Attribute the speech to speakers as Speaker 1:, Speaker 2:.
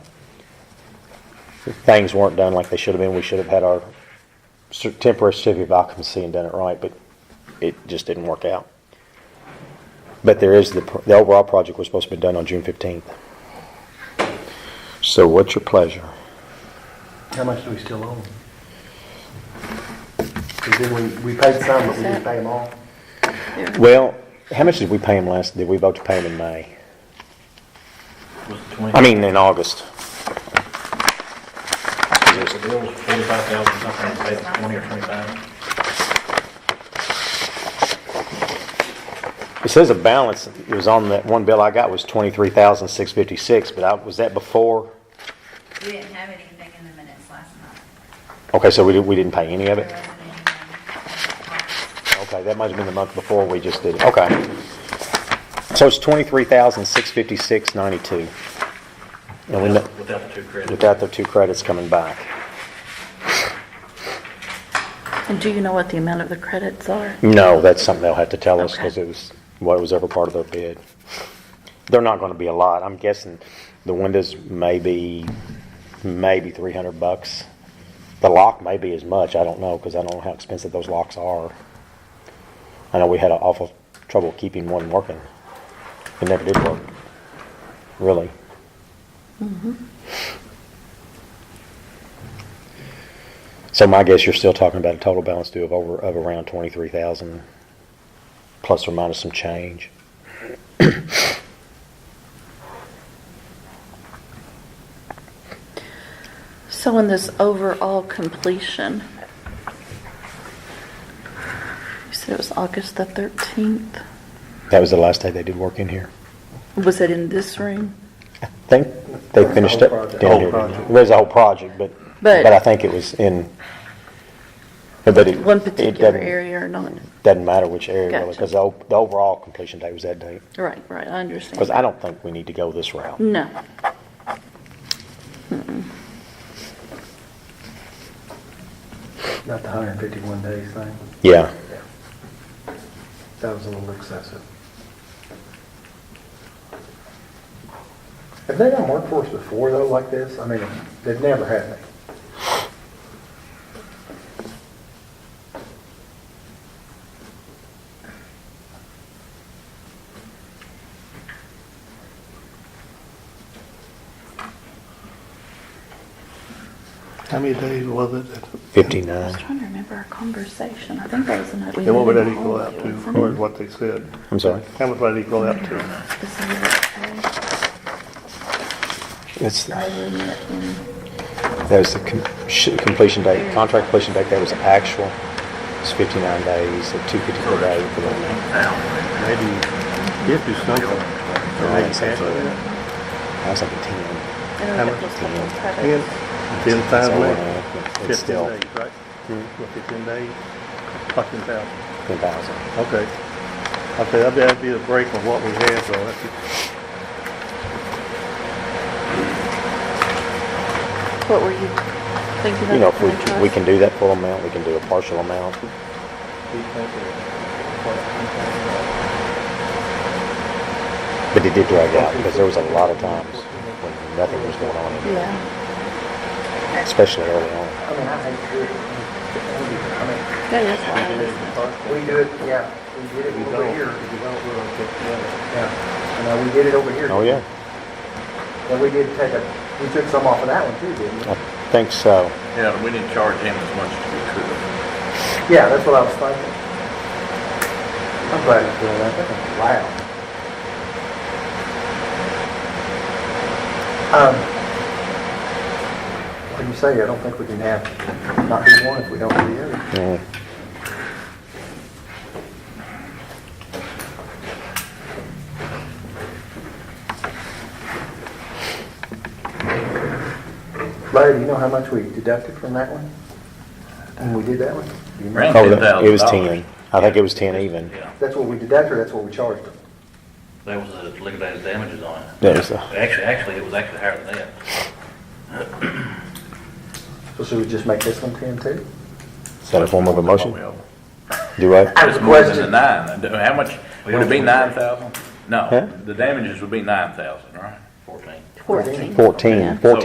Speaker 1: things weren't done like they should have been. We should have had our cer- temporary certificate of occupancy and done it right, but it just didn't work out. But there is, the, pr- the overall project was supposed to be done on June 15th. So what's your pleasure?
Speaker 2: How much do we still owe? Because then we, we paid some, but we didn't pay them all.
Speaker 1: Well, how much did we pay him last, did we vote to pay him in May? I mean, in August.
Speaker 3: The bill was forty-five thousand something, and paid the twenty or twenty-five.
Speaker 1: It says a balance, it was on that one bill I got was 23,656, but I, was that before?
Speaker 4: We didn't have anything in the minutes last month.
Speaker 1: Okay, so we didn't, we didn't pay any of
Speaker 4: There
Speaker 1: it?
Speaker 4: wasn't anything.
Speaker 1: Okay, that might have been the month before we just did it, okay. So it's 23,656.92. And we, kn-
Speaker 3: Without the two credits.
Speaker 1: without the two credits coming back.
Speaker 5: And do you know what the amount of the credits are?
Speaker 1: No, that's something they'll have to tell us
Speaker 5: Okay.
Speaker 1: because it was, what was ever part of their bid. They're not going to be a lot. I'm guessing the windows may be, maybe 300 bucks. The lock may be as much. I don't know because I don't know how expensive those locks are. I know we had an awful trouble keeping one working. It never did work, really. So my guess, you're still talking about a total balance due of over, of around 23,000, plus or minus some change.
Speaker 5: So in this overall completion, you said it was August the 13th?
Speaker 1: That was the last day they did work in here.
Speaker 5: Was it in this room?
Speaker 1: I think they finished up down here.
Speaker 2: Whole
Speaker 1: didn't
Speaker 2: project.
Speaker 1: they? There's a whole project, but,
Speaker 5: But-
Speaker 1: but I think it was in, but it,
Speaker 5: One
Speaker 1: it
Speaker 5: particular
Speaker 1: doesn't,
Speaker 5: area or not?
Speaker 1: doesn't matter which area really,
Speaker 5: Gotcha.
Speaker 1: because the o- the overall completion date was that date.
Speaker 5: Right, right, I understand.
Speaker 1: Because I don't think we need to go this route.
Speaker 5: No.
Speaker 2: Not the hundred and fifty-one days thing.
Speaker 1: Yeah.
Speaker 2: That was a little excessive. Have they done work for us before though, like this? I mean, they've never had me.
Speaker 6: How many days was it?
Speaker 1: 59.
Speaker 5: I was trying to remember our conversation. I think that was the night we.
Speaker 6: And what would
Speaker 5: met
Speaker 6: that
Speaker 5: in the
Speaker 6: equal
Speaker 5: hall.
Speaker 6: out to,
Speaker 5: It
Speaker 6: as
Speaker 5: was something
Speaker 6: far as what they said?
Speaker 1: I'm sorry.
Speaker 6: How much would that equal out to?
Speaker 5: specific.
Speaker 1: It's,
Speaker 5: I remember it in-
Speaker 1: That was the com- sh- completion date, contract completion date, that was actual, it's 59 days, so 250 per day for the
Speaker 6: Maybe fifty something.
Speaker 1: I was thinking 10.
Speaker 5: I don't know if it was
Speaker 1: How much?
Speaker 5: something
Speaker 6: Ten,
Speaker 5: credit.
Speaker 6: ten
Speaker 1: That's
Speaker 6: thousand,
Speaker 1: all I
Speaker 6: eight.
Speaker 1: have, but It's
Speaker 6: fifteen
Speaker 1: still
Speaker 6: days, right? What, Fifteen days, fucking thousand.
Speaker 1: 10,000.
Speaker 6: Okay. Okay, that'd be- that'd be a break on what we had, though. That's it.
Speaker 5: What were you thinking of?
Speaker 1: You know, if we, we can do that full amount, we can do a partial amount. But it did drag out, because there was a lot of times when nothing was going on,
Speaker 5: Yeah.
Speaker 1: especially early on.
Speaker 2: I mean, I think we, I
Speaker 5: Yeah, that's why I was-
Speaker 2: mean, we do it, yeah, we did it over here.
Speaker 6: If you don't, we'll get together.
Speaker 2: Yeah, I know, we did it over here.
Speaker 1: Oh, yeah,
Speaker 2: But we did take a, we took some off of that one too, didn't we?
Speaker 1: I think so.
Speaker 3: Yeah, we didn't charge him as much as we could.
Speaker 2: Yeah, that's what I was thinking. I'm glad you did that, that's loud. Um, Like you say, I don't think we can have, not do one if we don't do the other.
Speaker 1: Mm.
Speaker 2: Larry, do you know how much we deducted from that one? When we did that one? Do you remember?
Speaker 3: Right.
Speaker 1: Oh, that- It was
Speaker 3: $10,000.
Speaker 1: 10, I think it was 10 even.
Speaker 3: Yeah,
Speaker 2: That's what we deducted, that's what we charged them.
Speaker 3: that was the liquidated damages on it.
Speaker 1: That was the-
Speaker 3: Actually, actually, it was actually higher than that.
Speaker 2: So should we just make this one ten too?
Speaker 1: Is that a form of a motion? Do I?
Speaker 2: I have
Speaker 7: It's
Speaker 2: a
Speaker 7: more than the
Speaker 2: question.
Speaker 7: nine. How much, would it be nine thousand?
Speaker 1: Huh?
Speaker 7: No, the damages would be nine thousand, right?
Speaker 3: Fourteen.
Speaker 5: Fourteen.
Speaker 1: 14,
Speaker 5: Yeah.
Speaker 1: 14.